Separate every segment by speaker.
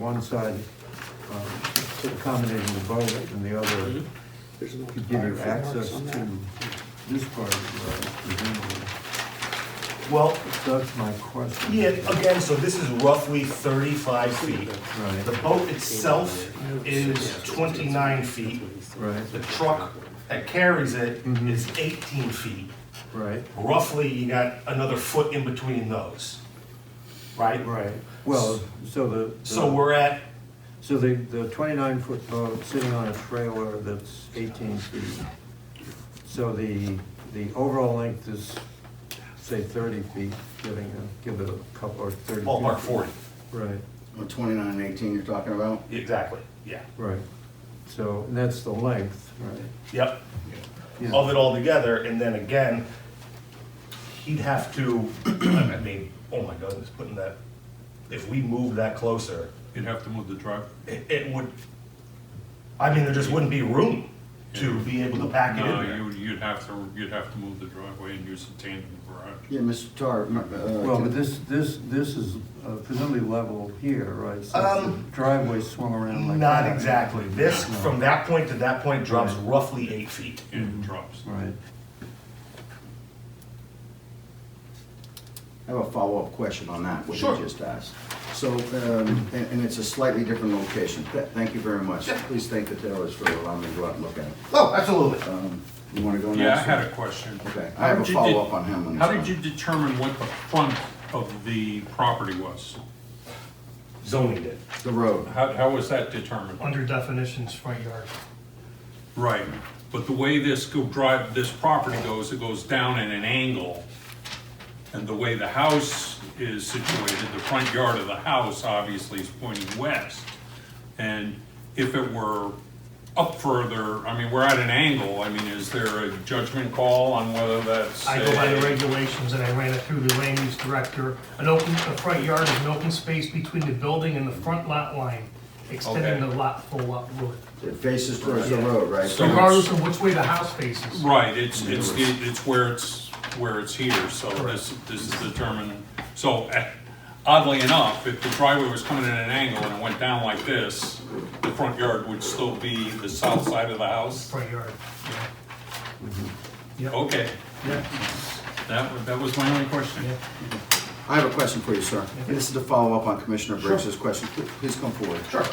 Speaker 1: one side um, accommodating the boat and the other to give you access to this part of the road. Well, that's my question.
Speaker 2: Yeah, again, so this is roughly thirty-five feet.
Speaker 1: Right.
Speaker 2: The boat itself is twenty-nine feet.
Speaker 1: Right,
Speaker 2: The truck that carries it is eighteen feet.
Speaker 1: right,
Speaker 2: Roughly, you got another foot in between those, right?
Speaker 1: right. Well, so the.
Speaker 2: So we're at,
Speaker 1: So the, the twenty-nine foot boat sitting on a trailer that's eighteen feet. So the, the overall length is, say, thirty feet, giving, a- give it a couple, or thirty.
Speaker 2: ballpark
Speaker 1: feet.
Speaker 2: forty,
Speaker 1: Right,
Speaker 3: Well, Twenty-nine and eighteen you're talking about?
Speaker 2: exactly, yeah,
Speaker 1: right. So, and that's the length, right?
Speaker 2: yep.
Speaker 1: Yeah.
Speaker 2: of it all together, and then again, he'd have to, I mean, oh my goodness, putting that, if we move that closer,
Speaker 4: You'd have to move the truck.
Speaker 2: it, it would, I mean, there just wouldn't be room to be able to pack it
Speaker 4: No,
Speaker 2: in there.
Speaker 4: you, you'd have to, you'd have to move the driveway and use the tandem garage.
Speaker 3: Yeah, Mr. Tar, m- uh.
Speaker 1: Well,
Speaker 3: can-
Speaker 1: but this, this, this is uh, presumably level here, right? So
Speaker 2: Um,
Speaker 1: the driveway swung around like that.
Speaker 2: Not exactly, this, from that point to that point drops roughly eight feet.
Speaker 3: Mm-hmm.
Speaker 4: It drops.
Speaker 1: Right,
Speaker 3: I have a follow-up question on that, what
Speaker 2: Sure.
Speaker 3: you just asked. So, um, and, and it's a slightly different location. Th- Thank you very much.
Speaker 2: Yeah.
Speaker 3: Please thank the tailors for allowing me to go out and look at it.
Speaker 2: Oh, absolutely.
Speaker 3: Um, you wanna go next?
Speaker 4: Yeah, I had a question.
Speaker 3: Okay, I
Speaker 4: How
Speaker 3: have a
Speaker 4: did you de-
Speaker 3: follow-up on him. when
Speaker 4: How
Speaker 3: it's
Speaker 4: did you determine what the front of the property was?
Speaker 2: Zoning did.
Speaker 3: on. The road.
Speaker 4: How, how was that determined?
Speaker 5: Under definitions, front yard.
Speaker 4: Right, but the way this go drive, this property goes, it goes down at an angle. And the way the house is situated, the front yard of the house obviously is pointing west. And if it were up further, I mean, we're at an angle, I mean, is there a judgment call on whether that's?
Speaker 5: I go by the
Speaker 4: a-
Speaker 5: regulations and I ran it through the land use director. An open, a front yard is an open space between the building and the front lot line, extending
Speaker 4: Okay.
Speaker 5: the lot full up road.
Speaker 3: It faces towards the road, right?
Speaker 4: So-
Speaker 5: Regardless of which way the house faces.
Speaker 4: Right, it's, it's, the- it's where it's, where it's here, so this, this is determined, so eh, oddly enough, if the driveway was coming at an angle and it went down like this, the front yard would still be the south side of the house?
Speaker 5: Front yard, yeah.
Speaker 4: Okay,
Speaker 5: Yeah.
Speaker 4: that, wa- that was my only question.
Speaker 5: Yeah.
Speaker 3: I have a question for you, sir. And this is to follow up on Commissioner Briggs' question. Pl- Please come forward. Sure.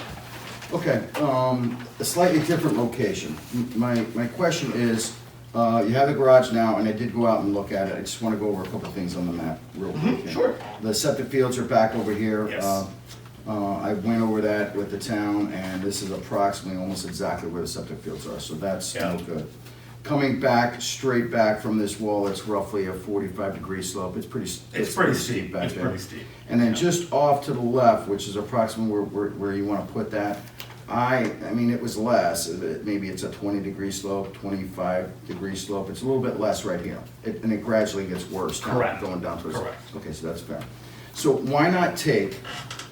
Speaker 3: Okay, um, a slightly different location. M- My, my question is, uh, you have the garage now, and I did go out and look at it. I just want to go over a couple things on the map real quick. here.
Speaker 2: Mm-hmm, sure.
Speaker 3: The septic fields are back over here.
Speaker 2: Yes.
Speaker 3: Uh, uh, I went over that with the town, and this is approximately almost exactly where the septic fields are, so that's
Speaker 2: Yeah.
Speaker 3: no good. Coming back, straight back from this wall, it's roughly a forty-five degree slope. It's pretty, s-
Speaker 2: It's pretty steep,
Speaker 3: back
Speaker 2: it's
Speaker 3: there.
Speaker 2: pretty steep.
Speaker 3: And then just off to the left, which is approximately where, where, where you wanna put that, I, I mean, it was less, it- maybe it's a twenty degree slope, twenty-five degree slope, it's a little bit less right here. It, and it gradually gets worse down-
Speaker 2: Correct.
Speaker 3: going down towards.
Speaker 2: Correct.
Speaker 3: Okay, so that's fair. So why not take,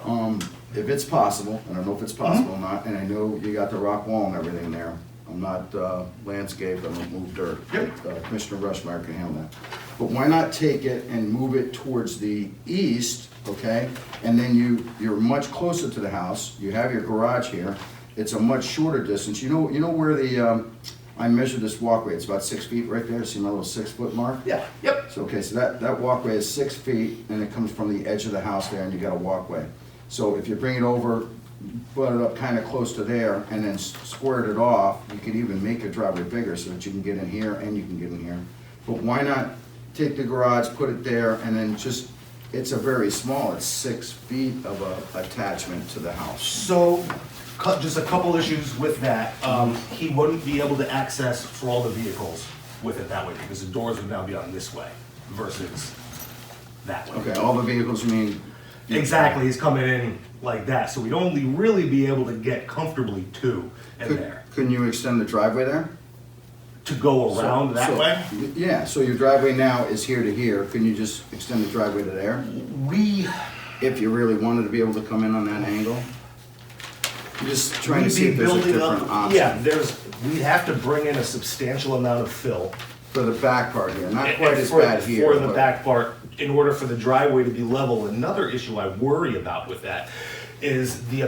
Speaker 3: um, if it's possible, and I don't know if it's possible
Speaker 2: Mm-hmm.
Speaker 3: or not, and I know you got the rock wall and everything there. I'm not, uh, landscaped, I don't move dirt.
Speaker 2: Yep.
Speaker 3: Uh, Commissioner Rushmeyer can handle that. But why not take it and move it towards the east, okay? And then you, you're much closer to the house, you have your garage here, it's a much shorter distance. You know, you know where the, um, I measured this walkway, it's about six feet right there, see my little six-foot mark?
Speaker 2: Yeah, yep.
Speaker 3: So, okay, so that, that walkway is six feet, and it comes from the edge of the house there, and you got a walkway. So if you bring it over, put it up kind of close to there, and then s- squared it off, you could even make your driveway bigger so that you can get in here and you can get in here. But why not take the garage, put it there, and then just, it's a very small, it's six feet of a attachment to the house.
Speaker 2: So, cu- just a couple issues with that. Um, he wouldn't be able to access for all the vehicles with it that way because the doors would now be on this way versus that way.
Speaker 3: Okay, all the vehicles, you mean?
Speaker 2: Exactly, he's coming in like that, so we'd only really be able to get comfortably two in
Speaker 3: Could-
Speaker 2: there.
Speaker 3: Couldn't you extend the driveway there?
Speaker 2: To go around that
Speaker 3: So-
Speaker 2: way,
Speaker 3: Yeah, so your driveway now is here to here, can you just extend the driveway to there?
Speaker 2: we,
Speaker 3: If you really wanted to be able to come in on that angle? I'm Just trying to
Speaker 2: we'd
Speaker 3: see
Speaker 2: be
Speaker 3: if there's a
Speaker 2: building up.
Speaker 3: different option
Speaker 2: Yeah, there's, we'd have to bring in a substantial amount of fill.
Speaker 3: for the back part here, not
Speaker 2: And-
Speaker 3: quite
Speaker 2: and
Speaker 3: as
Speaker 2: Eh, for-
Speaker 3: bad here.
Speaker 2: For the
Speaker 3: but-
Speaker 2: back part, in order for the driveway to be level, another issue I worry about with that is the